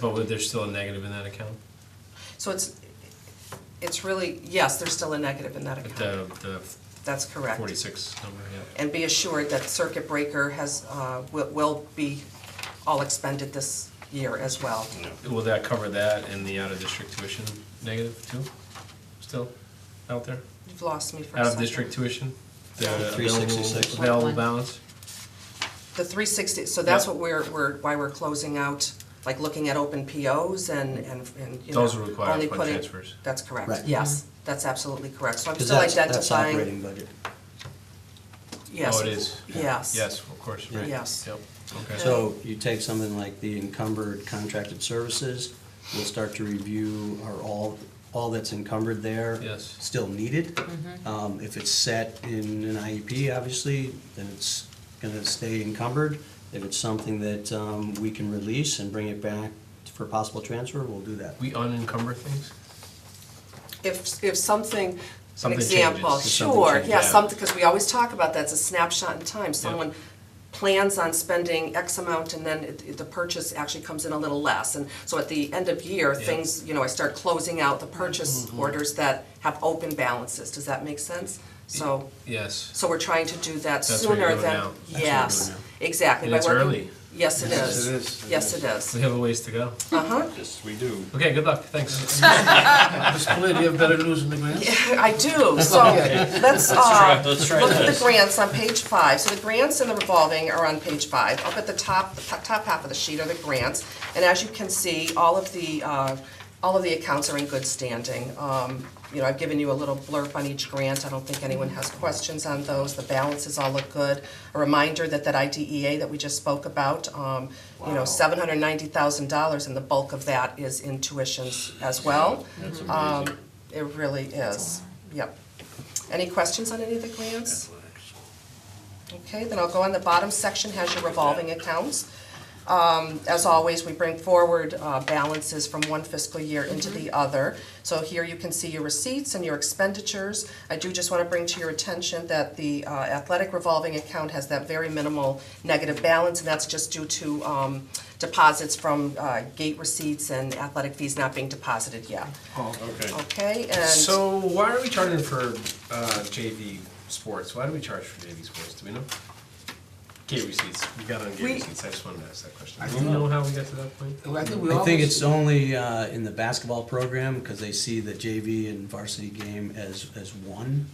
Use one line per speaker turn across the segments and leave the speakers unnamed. But would- there's still a negative in that account?
So it's, it's really, yes, there's still a negative in that
At
account.
the,
That's
the
correct.
forty-six number, yeah.
And be assured that circuit breaker has, uh, will- will be all expended this year as well.
Will that cover that and the out-of-district tuition negative too? Still out there?
You've lost me for a second.
Out-of-district tuition? The
Yeah.
available,
366.
available
One.
balance?
The three sixty, so that's
Yeah.
what we're, we're, why we're closing out, like looking at open POs and, and, and, you know.
Those are required
only
fund
putting-
transfers.
That's correct,
Right.
yes, that's absolutely correct, so I'm
Because
still
that's,
identifying.
that's operating budget.
Yes.
Oh, it is?
Yes.
Yes, of course, right.
Yes.
Yep, okay.
So you take something like the encumbered contracted services, we'll start to review are all, all that's encumbered there.
Yes.
Still needed. Um, if it's set in an IEP, obviously, then it's gonna stay encumbered. If it's something that, um, we can release and bring it back for possible transfer, we'll do that.
We unencumber things?
If, if something, an
Something
example,
changes.
If something
sure,
changes.
yeah,
Yeah.
something, because we always talk about that, it's a snapshot in time. Someone plans on spending X amount and then it- it- the purchase actually comes in a little less. And so at the end of year,
Yeah. Mm-hmm,
things, you know, I start closing out the purchase orders that have open balances. Does that make sense? So,
Yes.
so we're trying to do that
That's what you're
sooner
doing now.
than,
That's
what you're
yes,
doing
exactly.
And
by
it's
working-
early.
Yes, it
Yes, it
is.
is. It
Yes,
is.
it is.
We have a ways to go.
Uh-huh.
Yes, we do.
Okay, good luck, thanks.
Ms. Flynn, do you have better news than the grants?
I do, so let's, uh, look at the grants on page five. So the grants and the revolving are on page five. Up at the top, the top top half of the sheet are the grants. And as you can see, all of the, uh, all of the accounts are in good standing. Um, You know, I've given you a little blurb on each grant. I don't think anyone has questions on those. The balances all look good. A reminder that that IDEA that we just spoke about, um, you know, seven hundred ninety thousand dollars and the bulk of that is in tuitions as well.
That's
Um,
amazing.
It really is, yep. Any questions on any of the grants? Okay, then I'll go on, the bottom section has your revolving accounts. Um, As always, we bring forward uh, balances from one fiscal year into the
Mm-hmm.
other. So here you can see your receipts and your expenditures. I do just want to bring to your attention that the uh, athletic revolving account has that very minimal negative balance, and that's just due to um, deposits from uh, gate receipts and athletic fees not being deposited yet.
Okay.
Okay, and.
So why are we charging for uh, JV sports? Why do we charge for JV sports? Do we know? Gate receipts. We got on gate
We-
receipts. I just wanted to ask that question.
I
Do you
don't
know
know.
how we got to that point?
I think we
I think
always-
it's only uh, in the basketball program, because they see the JV and varsity game as, as one.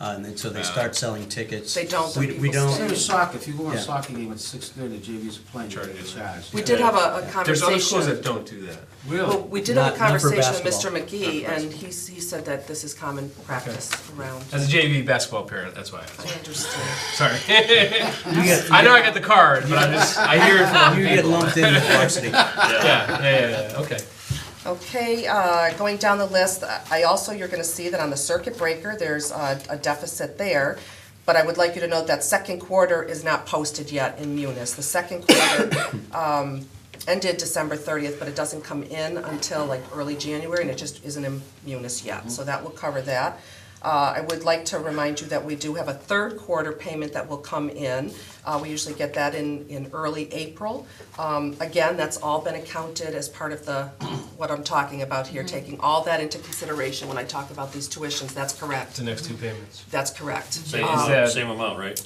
Uh, And then, so they start selling tickets.
They don't,
We,
but
we
people
Same
stay.
don't,
as soccer, if you go on a
Yeah.
soccer game at six thirty, JV's playing, you're
Charge it.
charged.
We did have a, a conversation.
There's other schools that don't do that.
Well,
Really?
we did have a
Not- not for
conversation with Mr.
basketball.
McGee, and he, s- he said that this is common practice around.
As a JV basketball parent, that's why. I
I
asked.
understand.
Sorry. I know I got the card, but I just I hear it from
you get
people.
lumped in with varsity.
Yeah, yeah, yeah, yeah. Okay.
Okay, uh, going down the list, I also, you're gonna see that on the circuit breaker, there's a a deficit there. But I would like you to note that second quarter is not posted yet in Munis. The second quarter um, ended December thirtieth, but it doesn't come in until like early January, and it just isn't in Munis
Mm-hmm.
yet. So that will cover that. Uh, I would like to remind you that we do have a third quarter payment that will come in. Uh, We usually get that in, in early April. Um, Again, that's all been accounted as part of the, what I'm talking about here, taking all that into consideration when I talk about these tuitions, that's correct.
The next two payments.
That's correct.
Same,
Um,
that-
same amount, right?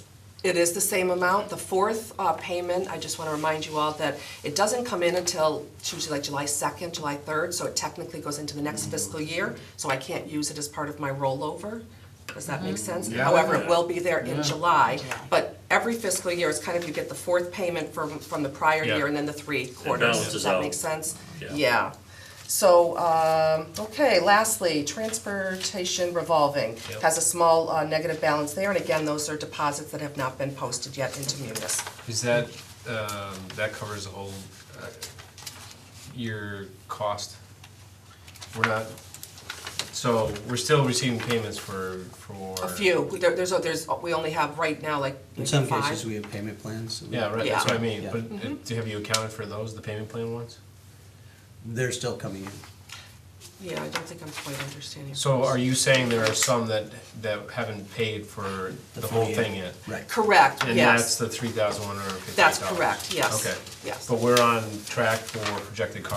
It is the same amount. The fourth uh, payment, I just want to remind you all that it doesn't come in until it's usually like July 2nd, July 3rd, so it technically goes into the next fiscal year, so I can't use it as part of my rollover. Does that make sense?
Yeah.
However, it will be there in
Yeah.
July, but every fiscal year, it's kind of, you get the fourth payment from, from the prior
Yeah.
year and then the three quarters. Does
balances
that
out.
make sense?
Yeah.
Yeah. So, um, okay, lastly, transportation revolving
Yep.
has a small uh, negative balance there, and again, those are deposits that have not been posted yet into munis.
Is that um, that covers the whole uh, year cost? We're not. So we're still receiving payments for for
A few, There- there's, a- there's, we only have right now like
In
maybe
some
five.
cases, we have payment plans.
Yeah, right, that's what I mean,
Yeah.
but
Mm-hmm.
uh, do- have you accounted for those, the payment plan ones?
They're still coming in.
Yeah, I don't think I'm quite understanding.
So are you saying there are some that, that haven't paid for the whole
48.
thing yet?
Right.
Correct,
And that's
yes.
the three thousand one hundred and fifty
That's
dollars?
correct, yes,
Okay.
yes.
But we're on track for projected cost